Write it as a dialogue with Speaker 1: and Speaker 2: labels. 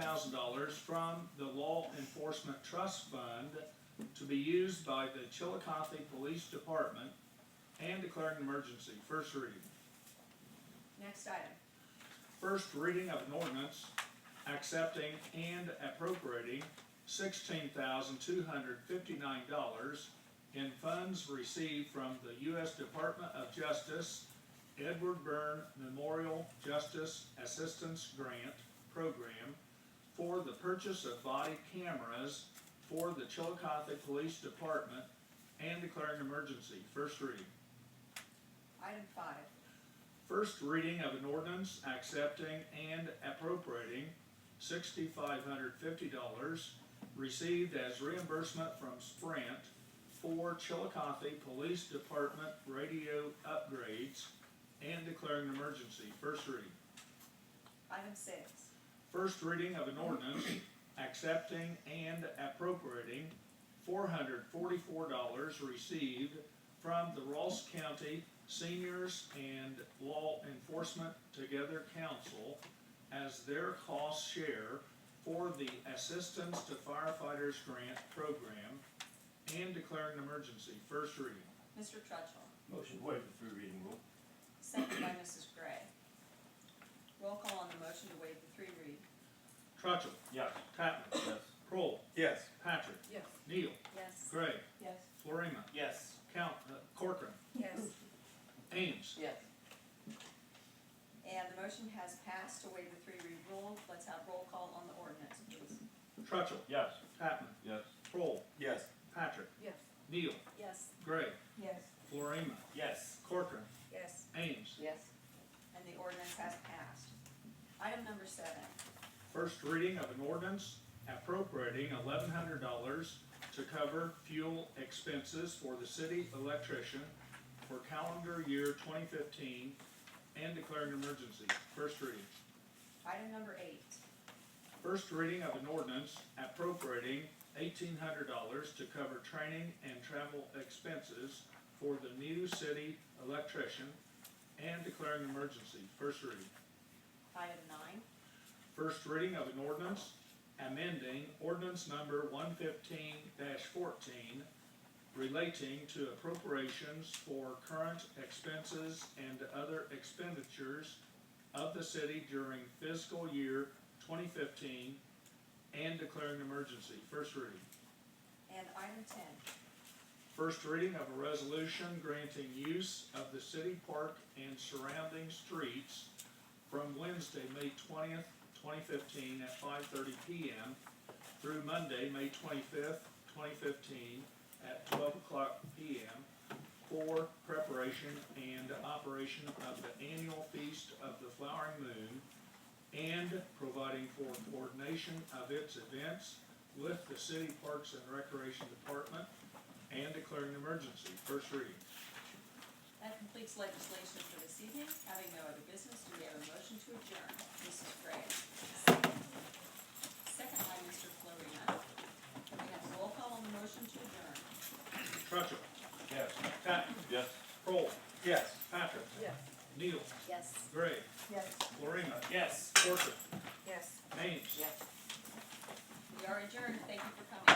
Speaker 1: thousand dollars from the Law Enforcement Trust Fund to be used by the Chillicothe Police Department and declaring an emergency. First reading.
Speaker 2: Next item.
Speaker 1: First reading of an ordinance accepting and appropriating sixteen thousand two hundred fifty-nine dollars in funds received from the U.S. Department of Justice Edward Byrne Memorial Justice Assistance Grant Program for the purchase of body cameras for the Chillicothe Police Department and declaring an emergency. First reading.
Speaker 2: Item five.
Speaker 1: First reading of an ordinance accepting and appropriating sixty-five hundred fifty dollars received as reimbursement from Sprint for Chillicothe Police Department radio upgrades and declaring an emergency. First reading.
Speaker 2: Item six.
Speaker 1: First reading of an ordinance accepting and appropriating four hundred forty-four dollars received from the Ross County Seniors and Law Enforcement Together Council as their cost share for the Assistance to Firefighters Grant Program and declaring an emergency. First reading.
Speaker 2: Mr. Trudgeon,
Speaker 3: Motion to waive the three reading rule.
Speaker 2: second by Mrs. Gray. Roll call on the motion to waive the three read.
Speaker 1: Truttle.
Speaker 3: Yes.
Speaker 1: Tatman.
Speaker 3: Yes.
Speaker 1: Kroll.
Speaker 4: Yes.
Speaker 1: Patrick.
Speaker 2: Yes.
Speaker 1: Neal.
Speaker 2: Yes.
Speaker 1: Gray.
Speaker 2: Yes.
Speaker 1: Florima.
Speaker 3: Yes.
Speaker 1: Count, uh, Corcoran.
Speaker 2: Yes.
Speaker 1: Ames.
Speaker 2: Yes. And the motion has passed to waive the three read rule. Let's have roll call on the ordinance, please.
Speaker 1: Truttle.
Speaker 3: Yes.
Speaker 1: Tatman.
Speaker 3: Yes.
Speaker 1: Kroll.
Speaker 4: Yes.
Speaker 1: Patrick.
Speaker 2: Yes.
Speaker 1: Neal.
Speaker 2: Yes.
Speaker 1: Gray.
Speaker 2: Yes.
Speaker 1: Florima.
Speaker 3: Yes.
Speaker 1: Corcoran.
Speaker 2: Yes.
Speaker 1: Ames.
Speaker 2: Yes. And the ordinance has passed. Item number seven.
Speaker 1: First reading of an ordinance appropriating eleven hundred dollars to cover fuel expenses for the city electrician for calendar year twenty fifteen and declaring an emergency. First reading.
Speaker 2: Item number eight.
Speaker 1: First reading of an ordinance appropriating eighteen hundred dollars to cover training and travel expenses for the new city electrician and declaring an emergency. First reading.
Speaker 2: Item nine.
Speaker 1: First reading of an ordinance amending ordinance number one fifteen fourteen relating to appropriations for current expenses and other expenditures of the city during fiscal year twenty fifteen and declaring an emergency. First reading.
Speaker 2: And item ten.
Speaker 1: First reading of a resolution granting use of the city park and surrounding streets from Wednesday, May twentieth, twenty fifteen, at five thirty PM through Monday, May twenty-fifth, twenty fifteen, at twelve o'clock PM for preparation and operation of the annual feast of the flowering moon and providing for coordination of its events with the city parks and recreation department and declaring an emergency. First reading.
Speaker 2: That completes legislation for this evening. Having no other business, do we have a motion to adjourn? Mrs. Gray. Second by Mr. Florina. We have a roll call on the motion to adjourn.
Speaker 1: Truttle.
Speaker 3: Yes.
Speaker 1: Tatman.
Speaker 3: Yes.
Speaker 1: Kroll.
Speaker 4: Yes.
Speaker 1: Patrick.
Speaker 2: Yes.
Speaker 1: Neal.
Speaker 2: Yes.
Speaker 1: Gray.
Speaker 2: Yes.
Speaker 1: Florina.
Speaker 3: Yes.
Speaker 1: Corcoran.
Speaker 2: Yes.
Speaker 1: Ames.
Speaker 2: Yes. We are adjourned. Thank you for coming.